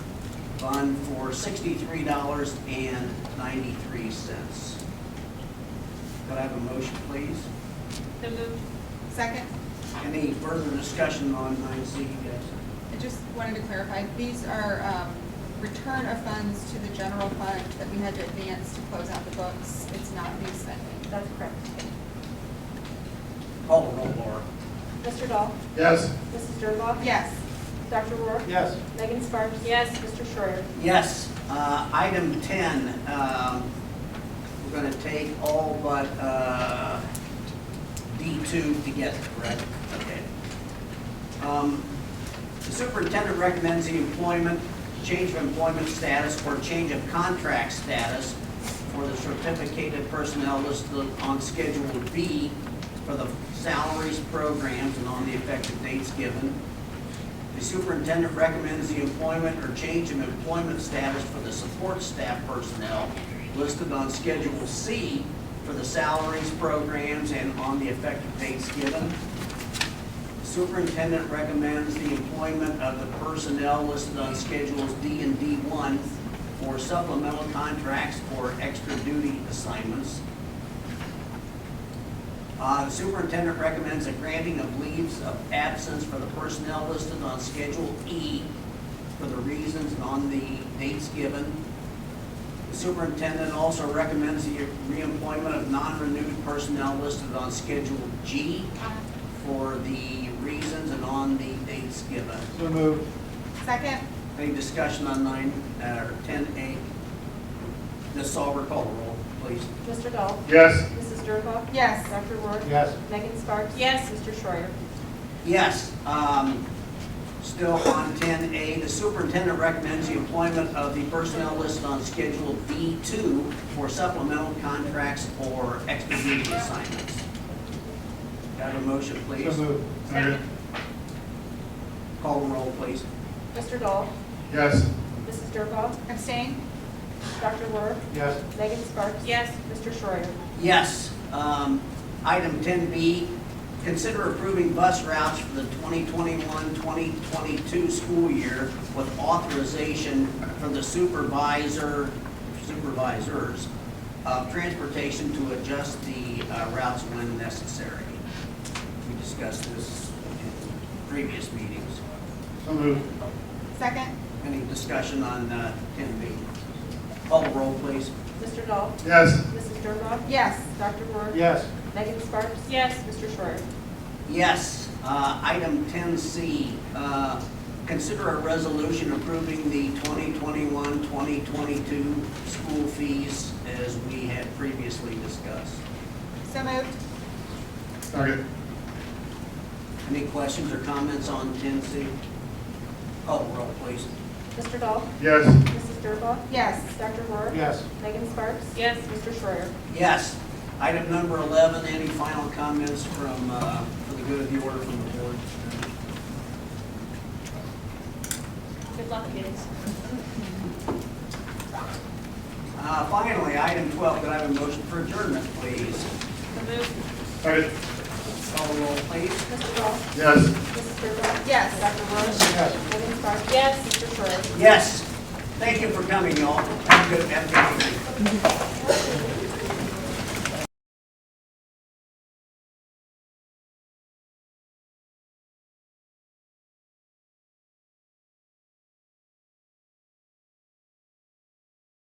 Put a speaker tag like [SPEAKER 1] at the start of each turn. [SPEAKER 1] fund for sixty-three dollars and ninety-three cents. Could I have a motion, please?
[SPEAKER 2] So moved.
[SPEAKER 3] Second,
[SPEAKER 1] Any further discussion on nine C, guys?
[SPEAKER 3] I just wanted to clarify, these are um, return of funds to the general fund that we had to advance to close out the books. It's not new spending.
[SPEAKER 4] That's correct.
[SPEAKER 1] Call the roll, Laura.
[SPEAKER 4] Mr. Dahl?
[SPEAKER 5] Yes.
[SPEAKER 4] Mrs. Dernbach?
[SPEAKER 3] Yes.
[SPEAKER 4] Dr. Rohr?
[SPEAKER 5] Yes.
[SPEAKER 4] Megan Sparks?
[SPEAKER 2] Yes.
[SPEAKER 4] Mr. Schreier?
[SPEAKER 1] Yes, uh, item ten, um, we're gonna take all but, uh, D two together, correct? Okay. Um, the superintendent recommends the employment, change of employment status or change of contract status for the certificated personnel listed on Schedule B for the salaries, programs, and on the effective dates given. The superintendent recommends the employment or change of employment status for the support staff personnel listed on Schedule C for the salaries, programs, and on the effective dates given. Superintendent recommends the employment of the personnel listed on Schedules D and D1 for supplemental contracts or extra duty assignments. Uh, The Superintendent recommends the granting of leaves of absence for the personnel listed on Schedule E for the reasons and on the dates given. The Superintendent also recommends the reemployment of non-renewed personnel listed on Schedule G for the reasons and on the dates given.
[SPEAKER 5] So moved.
[SPEAKER 3] Second,
[SPEAKER 1] Any discussion on nine, uh, or ten A? Ms. Sauber, call the roll, please.
[SPEAKER 4] Mr. Dahl?
[SPEAKER 5] Yes.
[SPEAKER 4] Mrs. Dernbach?
[SPEAKER 3] Yes.
[SPEAKER 4] Dr. Rohr?
[SPEAKER 5] Yes.
[SPEAKER 4] Megan Sparks?
[SPEAKER 2] Yes.
[SPEAKER 4] Mr. Schreier?
[SPEAKER 1] Yes, um, still on ten A, the superintendent recommends the employment of the personnel listed on Schedule B two for supplemental contracts or extra duty assignments. Got a motion, please?
[SPEAKER 5] moved.
[SPEAKER 2] Second.
[SPEAKER 1] Call the roll, please.
[SPEAKER 4] Mr. Dahl?
[SPEAKER 5] Yes.
[SPEAKER 4] Mrs. Dernbach?
[SPEAKER 3] abstain?
[SPEAKER 4] Dr. Rohr?
[SPEAKER 5] Yes.
[SPEAKER 4] Megan Sparks?
[SPEAKER 2] Yes.
[SPEAKER 4] Mr. Schreier?
[SPEAKER 1] Yes. Um, Item 10B, consider approving bus routes for the 2021-2022 school year with authorization for the supervisor, supervisors of transportation to adjust the uh, routes when necessary. We discussed this in previous meetings.
[SPEAKER 5] So moved.
[SPEAKER 3] Second,
[SPEAKER 1] Any discussion on uh, 10B? Call the roll, please.
[SPEAKER 4] Mr. Dahl?
[SPEAKER 5] Yes.
[SPEAKER 4] Mrs. Dernbach?
[SPEAKER 3] yes.
[SPEAKER 4] Dr. Rohr?
[SPEAKER 5] Yes.
[SPEAKER 4] Megan Sparks?
[SPEAKER 2] Yes.
[SPEAKER 4] Mr. Schreier?
[SPEAKER 1] Yes. Uh, Item 10C, uh, consider a resolution approving the 2021-2022 school fees as we had previously discussed.
[SPEAKER 3] So moved?
[SPEAKER 5] Second.
[SPEAKER 1] Any questions or comments on 10C? Call the roll, please.
[SPEAKER 4] Mr. Dahl?
[SPEAKER 5] Yes.
[SPEAKER 4] Mrs. Dernbach?
[SPEAKER 3] Yes.
[SPEAKER 4] Dr. Rohr?
[SPEAKER 5] Yes.
[SPEAKER 4] Megan Sparks?
[SPEAKER 2] Yes.
[SPEAKER 4] Mr. Schreier?
[SPEAKER 1] Yes. Item number 11, any final comments from, uh, for the good of the order from the board?
[SPEAKER 2] Good luck, kids.
[SPEAKER 1] Uh, Finally, item 12, could I have a motion for adjournment, please?
[SPEAKER 2] So moved.
[SPEAKER 5] Second.
[SPEAKER 1] Call the roll, please.
[SPEAKER 4] Mr. Dahl?
[SPEAKER 5] Yes.
[SPEAKER 4] Mrs. Dernbach?
[SPEAKER 3] Yes.
[SPEAKER 4] Dr. Rohr?
[SPEAKER 5] Yes.
[SPEAKER 4] Megan Sparks?
[SPEAKER 2] Yes.
[SPEAKER 4] Mr. Schreier?
[SPEAKER 1] Yes. Thank you for coming, y'all. Have a good, have a good evening.